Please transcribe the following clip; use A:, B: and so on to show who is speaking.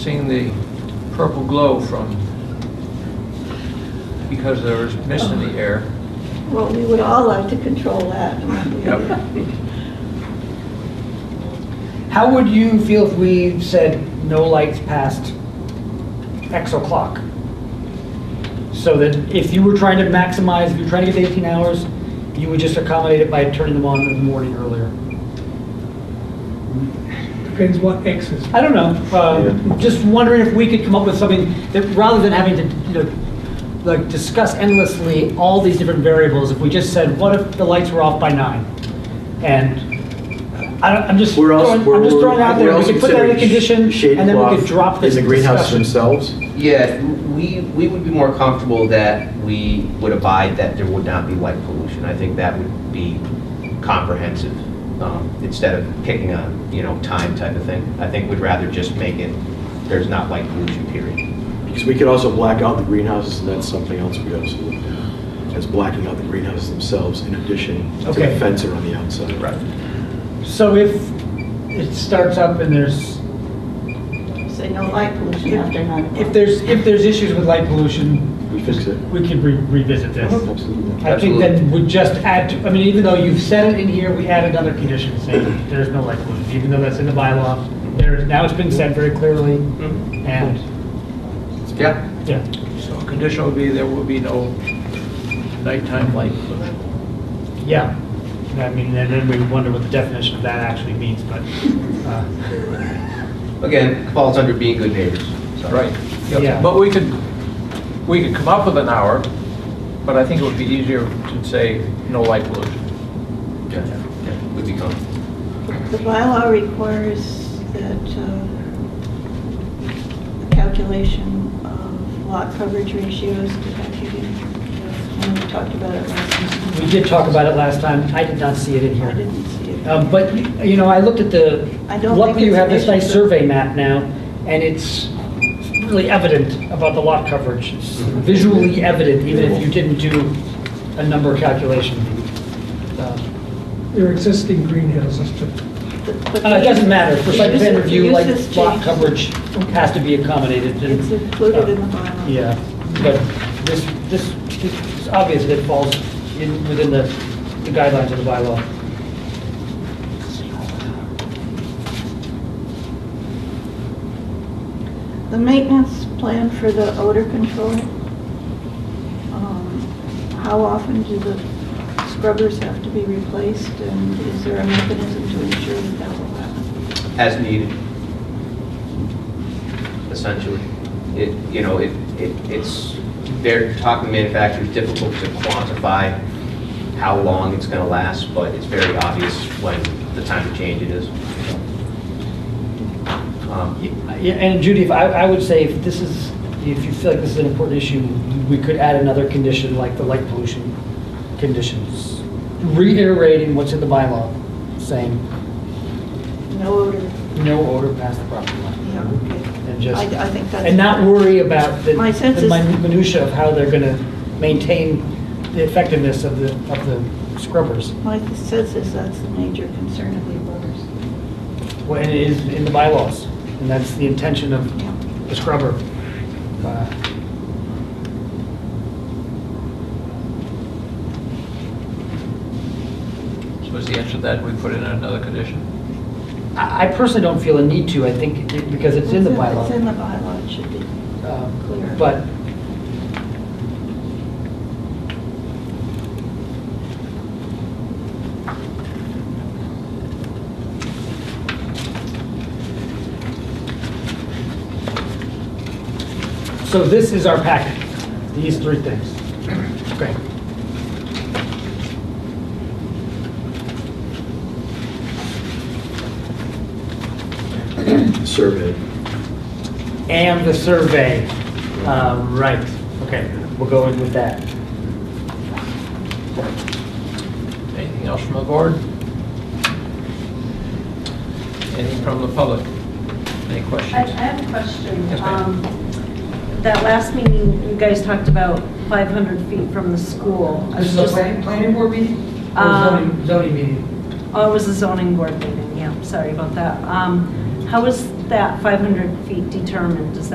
A: Seeing the purple glow from, because there was mist in the air.
B: Well, we would all like to control that.
A: Yep.
C: How would you feel if we said no lights past X o'clock? So that if you were trying to maximize, if you're trying to get to 18 hours, you would just accommodate it by turning them on in the morning earlier.
D: Depends what X is.
C: I don't know, uh, just wondering if we could come up with something that, rather than having to, you know, like discuss endlessly all these different variables, if we just said, what if the lights were off by nine? And I don't, I'm just
E: We're
C: throwing,
E: also,
C: I'm
E: we're,
C: just
E: we're
C: throwing it out there,
E: we're
C: we
E: also
C: could put that in
E: considering
C: the condition,
E: sh- shade
C: and then we
E: cloth
C: could drop
E: in
C: this
E: the greenhouse
C: discussion.
E: themselves.
F: Yeah, we, we would be more comfortable that we would abide that there would not be light pollution. I think that would be comprehensive, um, instead of picking a, you know, time type of thing. I think we'd rather just make it, there's not light pollution, period.
E: Because we could also black out the greenhouses, and that's something else we also looked at, is blacking out the greenhouses themselves in addition to
C: Okay.
E: the fence around the outside.
C: So if it starts up and there's,
B: Say no light pollution after nine o'clock.
C: if there's, if there's issues with light pollution,
E: We fix it.
C: we could re- revisit
E: Uh-huh.
C: this.
E: Absolutely.
C: I think that would just add, to- I mean, even though you've said it in here, we add another condition saying there's no light pollution, even though that's in the bylaw. There, now it's been said very clearly, and,
F: Yeah.
C: yeah.
A: So condition would be there will be no nighttime light pollution.
C: Yeah, I mean, and then we wonder what the definition of that actually means, but, uh,
F: Again, falls under being good neighbors. so.
A: Right. Yep.
C: Yeah.
A: But we could, we could come up with an hour, but I think it would be easier to say no light pollution.
F: Yeah, yeah, Would be comfortable.
B: The bylaw requires that uh, a calculation of lot coverage ratios, did I give you? When we talked about it last
C: we
B: time.
C: did talk about it last time. I did not see it in here.
B: I didn't see it.
C: Um, But, you- you know, I looked at the,
B: I don't
C: luckily
B: think
C: you
B: it's
C: have this
B: an issue, but-
C: nice survey map now, and it's really evident about the lot coverage. It's Visually evident, even if you didn't do a number calculation. Um,
D: They're existing greenhouses to,
B: But- but
C: uh, It doesn't matter, for site
B: the
C: plan
B: use-
C: review,
B: the
C: like,
B: use has
C: lot
B: changed.
C: coverage has to be accommodated. and,
B: It's included in the
C: uh,
B: bylaw.
C: Yeah, but this, this, it's obvious that it falls in, within the the guidelines of the bylaw.
B: The maintenance plan for the odor control, um, how often do the scrubbers have to be replaced? And is there a mechanism to ensure that that will happen?
F: as needed, essentially. It, you know, it, it it's, they're talking manufacturers, difficult to quantify how long it's going to last, but it's very obvious when the time to change it is. Um,
C: Yeah, and Judy, if I, I would say if this is, if you feel like this is an important issue, we could add another condition like the light pollution conditions, reiterating what's in the bylaw, saying
B: No odor?
C: no odor past the property line.
B: Yeah, okay.
C: And just,
B: I I think that's...
C: and not worry about the
B: My sense
C: the
B: is-
C: min- minutia of how they're gonna maintain the effectiveness of the, of the scrubbers.
B: My sense is that's the major concern of the voters.
C: Well, and it is in the bylaws, and that's the intention of
B: Yeah.
C: the scrubber. Uh,
A: So is the answer to that, we put in another condition?
C: I I personally don't feel a need to, I think, it- because it's in the bylaw.
B: It's in the bylaw, it should be.
C: Um,
B: Clear.
C: But, so this is our packet, these three things. Okay.
E: Survey.
C: And the survey. Uh, Right, okay, we'll go in with that.
A: Anything else from the board? Anything from the public? Any
G: I I
A: questions?
G: have a question.
A: Yes, ma'am.
G: Um, That last meeting, you guys talked about 500 feet from the school. I was just-
C: planning board meeting?
G: Um,
C: Oh, Zoning meeting.
G: Oh, it was a zoning board meeting, yeah, sorry about that. Um, How was that 500 feet determined? Is that